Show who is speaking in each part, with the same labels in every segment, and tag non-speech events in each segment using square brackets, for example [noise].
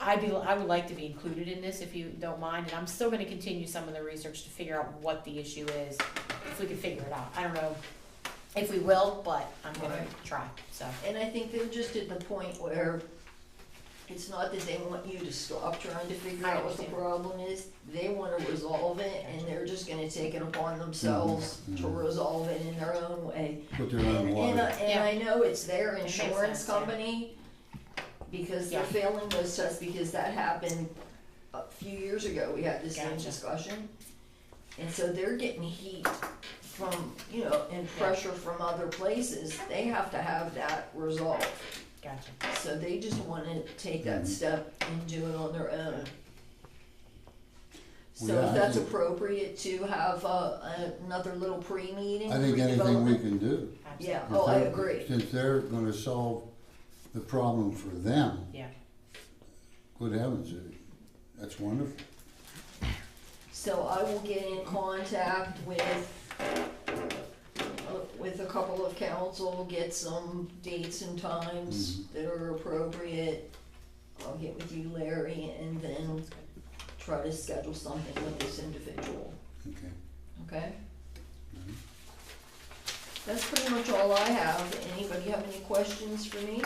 Speaker 1: I'd be, I would like to be included in this if you don't mind, and I'm still gonna continue some of the research to figure out what the issue is, if we can figure it out. I don't know if we will, but I'm gonna
Speaker 2: Right.
Speaker 1: try, so.
Speaker 2: And I think they're just at the point where it's not that they want you to stop trying to figure
Speaker 1: I
Speaker 2: out what the
Speaker 1: understand.
Speaker 2: problem is. They wanna resolve it and they're just gonna take it upon themselves to
Speaker 3: mhm.
Speaker 2: resolve it in their own way.
Speaker 3: Put their own
Speaker 2: And uh, I,
Speaker 3: water.
Speaker 2: and I know it's their
Speaker 1: makes
Speaker 2: insurance
Speaker 1: sense, yeah.
Speaker 2: company, because they're
Speaker 1: Yeah.
Speaker 2: failing those tests, because that happened a few years ago, we had this same
Speaker 1: Gotcha.
Speaker 2: discussion. And so they're getting heat from, you know, and
Speaker 1: Yeah.
Speaker 2: pressure from other places, they have to have that resolved.
Speaker 1: Gotcha.
Speaker 2: So they just wanna take that
Speaker 3: Mhm.
Speaker 2: step and do it on their own. So
Speaker 3: Well, yeah,
Speaker 2: if
Speaker 3: I
Speaker 2: that's
Speaker 3: think-
Speaker 2: appropriate to have a, another little pre-meeting.
Speaker 3: I think anything we
Speaker 2: pre-development.
Speaker 3: can do.
Speaker 1: Absolutely.
Speaker 2: Yeah,
Speaker 3: if
Speaker 2: oh, I
Speaker 3: they're-
Speaker 2: agree.
Speaker 3: Since they're gonna solve the problem for them,
Speaker 1: Yeah.
Speaker 3: good heavens, it- that's wonderful.
Speaker 2: So I will get in contact with, with a couple of council, get some dates and times that are appropriate. I'll get with you, Larry, and then try to schedule something with this individual,
Speaker 3: Okay.
Speaker 2: okay?
Speaker 3: Mhm.
Speaker 2: That's pretty much all I have. Anybody have any questions for me?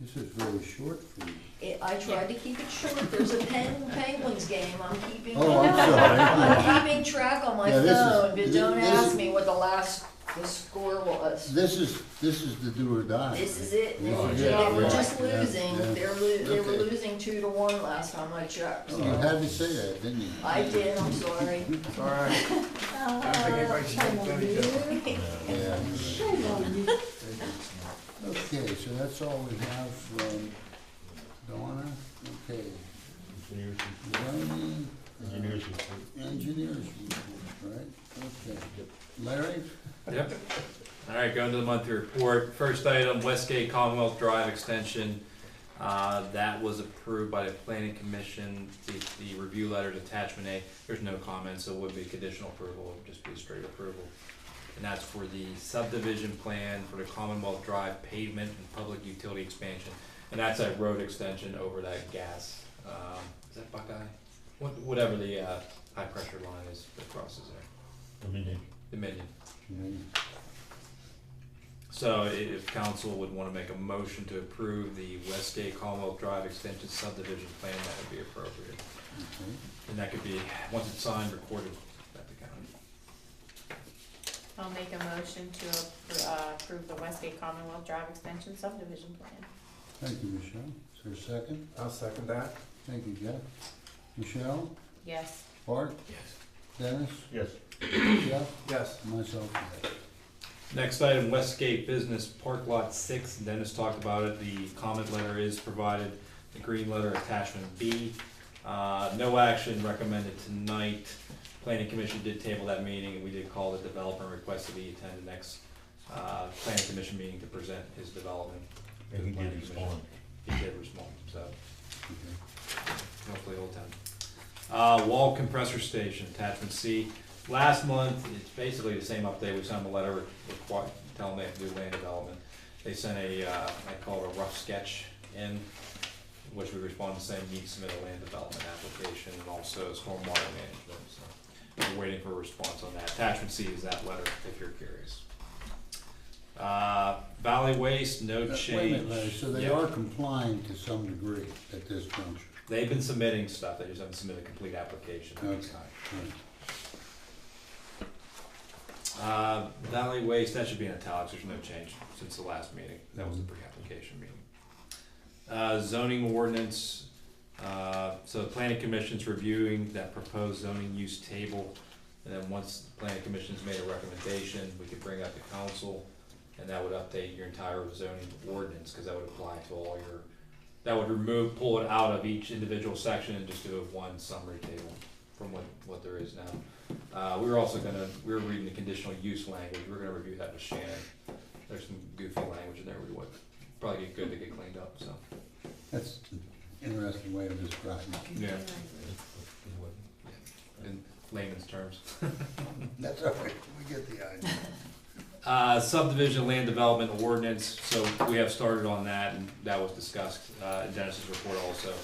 Speaker 3: This is very short for you.
Speaker 2: I- I tried to keep it short. There's a Pen- Penguins game. I'm keeping.
Speaker 3: Oh, I'm sorry.
Speaker 2: I'm keeping track on my
Speaker 3: Yeah, this is-
Speaker 2: phone, but
Speaker 3: thi-
Speaker 2: don't
Speaker 3: this
Speaker 2: ask
Speaker 3: is-
Speaker 2: me what the last, the score was.
Speaker 3: This is, this is the do or die.
Speaker 2: This is it,
Speaker 3: Yeah,
Speaker 2: They-
Speaker 3: Oh, yeah,
Speaker 2: they were
Speaker 3: yeah,
Speaker 2: just
Speaker 3: yeah,
Speaker 2: losing,
Speaker 3: yeah.
Speaker 2: they were, lo- they were
Speaker 3: Okay.
Speaker 2: losing two to one last time I checked,
Speaker 3: You
Speaker 2: so.
Speaker 3: had to say that, didn't you?
Speaker 2: I did, I'm sorry.
Speaker 4: It's all right. I think everybody's done each other.
Speaker 3: Yeah. Okay, so that's all we have from Donna. Okay. Zoning, uh, Engineers report, right? Okay. Larry?
Speaker 5: Yep. All right, going to the monthly report. First item, Westgate Commonwealth Drive extension. Uh, That was approved by the planning commission. The, the review letter is attachment A. There's no comment, so it would be conditional approval, it would just be straight approval. And that's for the subdivision plan for the Commonwealth Drive pavement and public utility expansion. And that's a road extension over that gas, um, is that Buckeye? What- Whatever the uh, high pressure line is that crosses there, the Dominion. So i- if council would wanna make a motion to approve the Westgate Commonwealth Drive Extension subdivision plan, that would be appropriate.
Speaker 3: Okay.
Speaker 5: And that could be, once it's signed, recorded at the county.
Speaker 1: I'll make a motion to appro- uh, approve the Westgate Commonwealth Drive Extension subdivision plan.
Speaker 3: Thank you, Michelle. Is there a second?
Speaker 4: I'll second that.
Speaker 3: Thank you, Jeff. Michelle?
Speaker 1: Yes.
Speaker 3: Bart? [clears throat] Dennis?
Speaker 6: Yes.
Speaker 3: Jeff?
Speaker 4: Yes.
Speaker 3: Myself, yes.
Speaker 5: Next item, Westgate Business Park Lot Six, Dennis talked about it, the comment letter is provided, the green letter attachment B. Uh, no action recommended tonight, planning commission did table that meeting, and we did call the developer and requested he attend the next, uh, planning commission meeting to present his development. to the
Speaker 6: And he
Speaker 5: planning
Speaker 6: did
Speaker 5: commission.
Speaker 6: respond.
Speaker 5: He did respond, so
Speaker 3: Okay.
Speaker 5: hopefully Old Town. Uh, wall compressor station, attachment C. Last month, it's basically the same update, we sent them a letter requi- telling them they have to do land development. They sent a, uh, I call it a rough sketch in, which we responded saying need to submit a land development application and also stormwater management, so. We're waiting for a response on that. Attachment C is that letter, if you're curious. Uh, Valley Waste, no
Speaker 3: Uh,
Speaker 5: change.
Speaker 3: Wait a minute, Larry, so they
Speaker 5: Yeah.
Speaker 3: are complying to some degree at this juncture?
Speaker 5: They've been submitting stuff, they just haven't submitted a complete application at this
Speaker 3: Okay.
Speaker 5: time.
Speaker 3: Right.
Speaker 5: Uh, Valley Waste, that should be in italics, there's no change since the last meeting, that was the pre-application meeting. Uh, zoning ordinance, uh, so the planning commission's reviewing that proposed zoning use table. And then once the planning commission's made a recommendation, we could bring up to council, and that would update your entire zoning ordinance, cause that would apply to all your, that would remove, pull it out of each individual section and just do a one summary table from what, what there is now. Uh, we were also gonna, we were reading the conditional use language, we were gonna review that with Shannon. There's some goofy language in there, we would probably get good to get cleaned up, so.
Speaker 3: That's an interesting way of describing it.
Speaker 5: Yeah. In layman's terms.
Speaker 3: [laughs] That's all right, we get the idea.
Speaker 5: Uh, subdivision land development ordinance, so we have started on that, and that was discussed, uh, in Dennis's report also.